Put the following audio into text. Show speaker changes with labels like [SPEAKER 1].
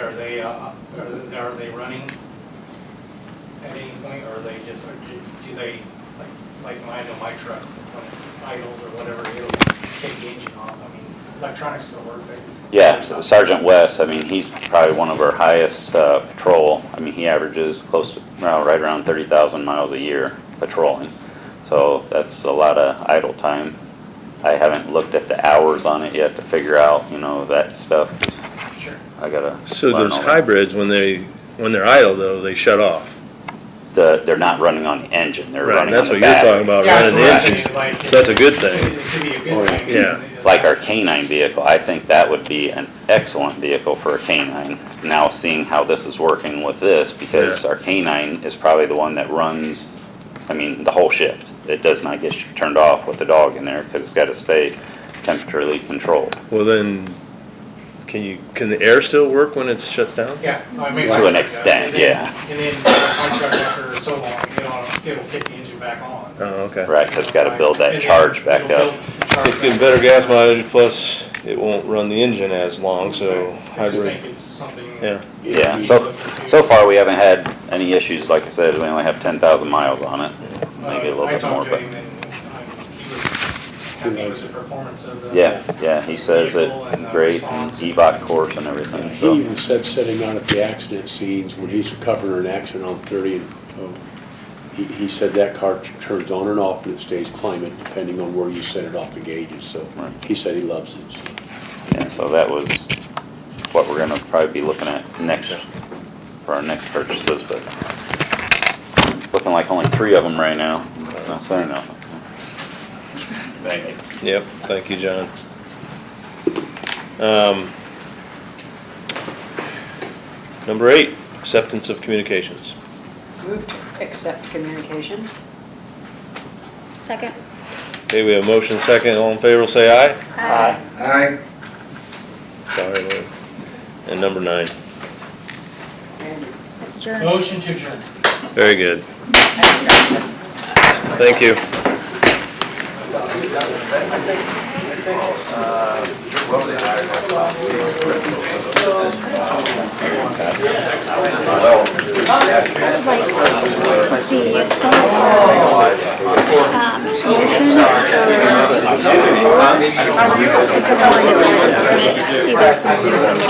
[SPEAKER 1] Are they, uh, are they- are they running at any point, or are they just, or do do they, like, like mine or my truck, when it's idle or whatever, it'll take the engine off? I mean, electronics still work, right?
[SPEAKER 2] Yeah, so Sergeant West, I mean, he's probably one of our highest uh, patrol. I mean, he averages close to, well, right around 30,000 miles a year patrolling. So that's a lot of idle time. I haven't looked at the hours on it yet to figure out, you know, that stuff, 'cause
[SPEAKER 1] Sure.
[SPEAKER 2] I gotta.
[SPEAKER 3] So
[SPEAKER 2] learn
[SPEAKER 3] those
[SPEAKER 2] all that.
[SPEAKER 3] hybrids, when they, when they're idle though, they shut off.
[SPEAKER 2] The, they're not running on the engine, they're
[SPEAKER 3] Right,
[SPEAKER 2] running on
[SPEAKER 3] that's
[SPEAKER 2] the
[SPEAKER 3] what you're talking
[SPEAKER 2] battery.
[SPEAKER 3] about,
[SPEAKER 1] Yeah,
[SPEAKER 3] running the
[SPEAKER 1] that's what I
[SPEAKER 3] engine.
[SPEAKER 1] mean, like,
[SPEAKER 3] So that's a good thing.
[SPEAKER 1] It could be a good thing.
[SPEAKER 3] Yeah.
[SPEAKER 2] Like our canine vehicle, I think that would be an excellent vehicle for a canine. Now seeing how this is working with this, because
[SPEAKER 3] Yeah.
[SPEAKER 2] our canine is probably the one that runs, I mean, the whole shift. It does not get sh- turned off with the dog in there, because it's gotta stay temperaturely controlled.
[SPEAKER 3] Well, then, can you, can the air still work when it shuts down?
[SPEAKER 1] Yeah. I mean, my
[SPEAKER 2] To an
[SPEAKER 1] truck does.
[SPEAKER 2] extent,
[SPEAKER 1] And then-
[SPEAKER 2] yeah.
[SPEAKER 1] And then my truck after so long, you know, it'll kick the engine back on.
[SPEAKER 3] Oh, okay.
[SPEAKER 2] Right, it's gotta build that
[SPEAKER 1] And then
[SPEAKER 2] charge back
[SPEAKER 1] it'll
[SPEAKER 2] up.
[SPEAKER 1] build the charge
[SPEAKER 3] It's getting
[SPEAKER 1] back
[SPEAKER 3] better
[SPEAKER 1] up.
[SPEAKER 3] gas mileage, plus it won't run the engine as long, so
[SPEAKER 1] I just think
[SPEAKER 3] hybrid,
[SPEAKER 1] it's something.
[SPEAKER 3] yeah.
[SPEAKER 2] Yeah, so, so far, we haven't had any issues, like I said, we only have ten thousand miles on it, maybe a little bit more,
[SPEAKER 1] I talked to
[SPEAKER 2] but,
[SPEAKER 1] him and um, he was happy with the performance of the.
[SPEAKER 2] yeah, yeah, he says it,
[SPEAKER 1] Vehicle and, uh,
[SPEAKER 2] great,
[SPEAKER 1] response.
[SPEAKER 2] EVOT course and everything, so.
[SPEAKER 4] He even said sitting out at the accident scenes, when he's covering an accident on 30, and oh, he, he said that car t- turns on and off and it stays climate depending on where you set it off the gauges, so
[SPEAKER 2] Right.
[SPEAKER 4] he said he loves it. so.
[SPEAKER 2] And so that was what we're gonna probably be looking at next, for our next purchases, but looking like only three of them right now, not saying nothing.
[SPEAKER 3] Yep, thank you, John. Um, Number eight, acceptance of communications.
[SPEAKER 5] Move to accept communications.
[SPEAKER 6] Second.
[SPEAKER 3] Okay, we have motion second, all in favor, say aye.
[SPEAKER 7] Aye.
[SPEAKER 6] Aye.
[SPEAKER 3] Sorry, Lou. And number nine,
[SPEAKER 5] Andy.
[SPEAKER 6] That's adjourned.
[SPEAKER 1] Motion to adjourn.
[SPEAKER 3] very good. Thank you.
[SPEAKER 6] Like to see if some of our, um, motion for, to combine it with permits, either from